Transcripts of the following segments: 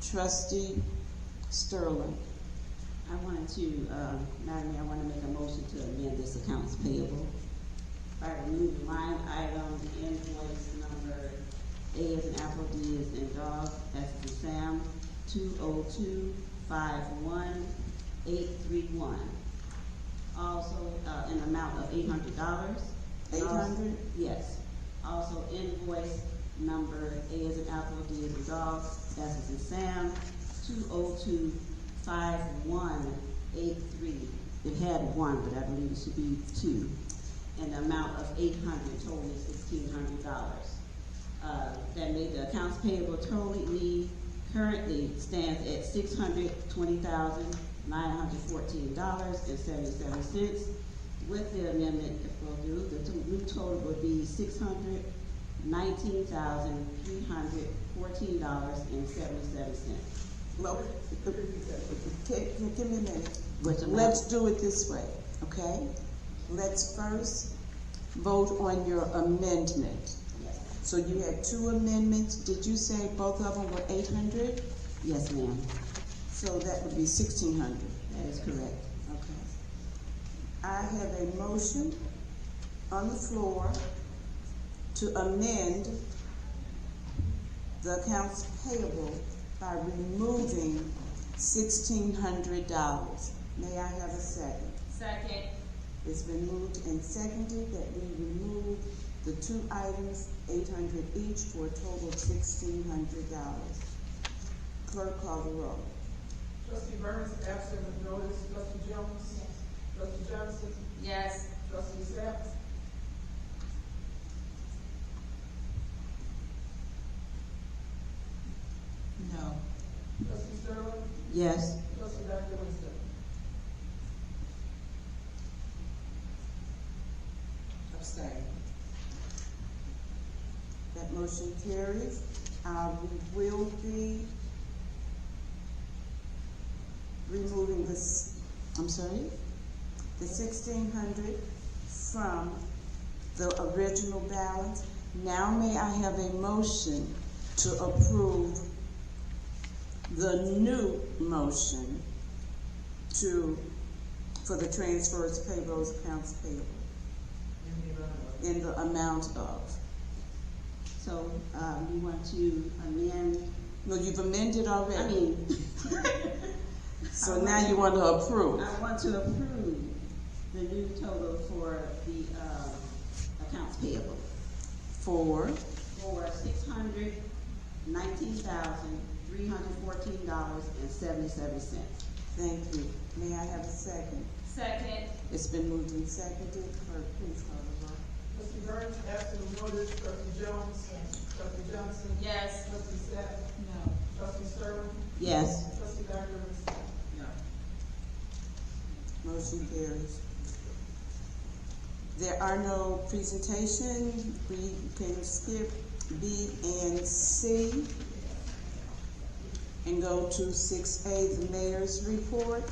Trustee Sterling. I wanted to, uh, Madam Mayor, I want to make a motion to amend this accounts payable by removing line item invoice number A as in apple, D as in dog, S as in Sam, two oh two five one eight three one. Also, uh, an amount of eight hundred dollars. $800? Yes. Also invoice number A as in apple, D as in dog, S as in Sam, two oh two five one eight three. It had one, but I believe it should be two. And the amount of eight hundred, totally sixteen hundred dollars. Uh, that made the accounts payable totally currently stands at six hundred twenty thousand nine hundred fourteen dollars and seventy-seven cents. With the amendment, if we'll do, the to- new total would be six hundred nineteen thousand three hundred fourteen dollars and seventy-seven cents. Well, okay, give me a minute. What's the matter? Let's do it this way, okay? Let's first vote on your amendment. Yes. So you had two amendments. Did you say both of them were eight hundred? Yes, ma'am. So that would be sixteen hundred. That is correct. Okay. I have a motion on the floor to amend the accounts payable by removing sixteen hundred dollars. May I have a second? Second. It's been moved and seconded that we remove the two items, eight hundred each, for a total of sixteen hundred dollars. Clerk call the roll. Trustee Burns absent with notice. Trustee Jones? Trustee Johnson? Yes. Trustee Sap? No. Trustee Sterling? Yes. Trustee Dr. Winston? Abstain. That motion carries. Uh, we will be removing this, I'm sorry, the sixteen hundred from the original balance. Now may I have a motion to approve the new motion to, for the transfers, payrolls, accounts payable in the amount of. So, um, you want to amend, No, you've amended already. I mean, so now you want to approve. I want to approve the new total for the, uh, accounts payable Four. for six hundred nineteen thousand, three hundred fourteen dollars and seventy-seven cents. Thank you. May I have a second? Second. It's been moved and seconded. Clerk, please call the roll. Trustee Burns absent with notice. Trustee Jones? Trustee Johnson? Yes. Trustee Sap? No. Trustee Sterling? Yes. Trustee Dr. Winston? Motion carries. There are no presentation. We can skip B and C and go to six A, the mayor's report.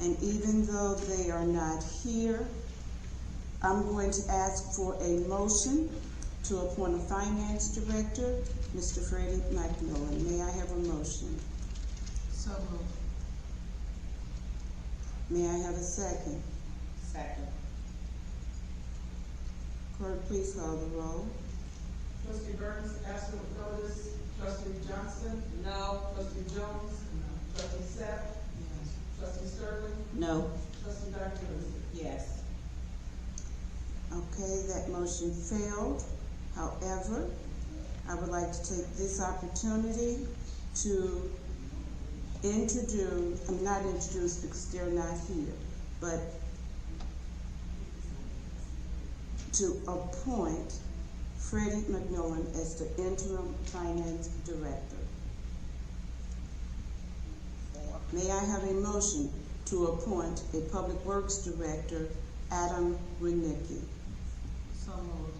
And even though they are not here, I'm going to ask for a motion to appoint a finance director, Mr. Freddie McMillan. May I have a motion? So May I have a second? Second. Clerk, please call the roll. Trustee Burns absent with notice. Trustee Johnson? No. Trustee Jones? Trustee Sap? Trustee Sterling? No. Trustee Dr. Winston? Yes. Okay, that motion failed. However, I would like to take this opportunity to introduce, I'm not introduce because they're not here, but to appoint Freddie McMillan as the interim finance director. May I have a motion to appoint a public works director, Adam Renicki? So moved.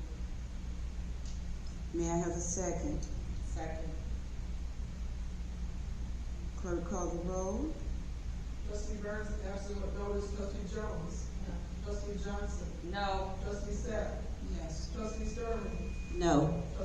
May I have a second? Second. Clerk call the roll. Trustee Burns absent with notice. Trustee Jones? Trustee Johnson? No. Trustee Sapp? Yes. Trustee Sterling? No.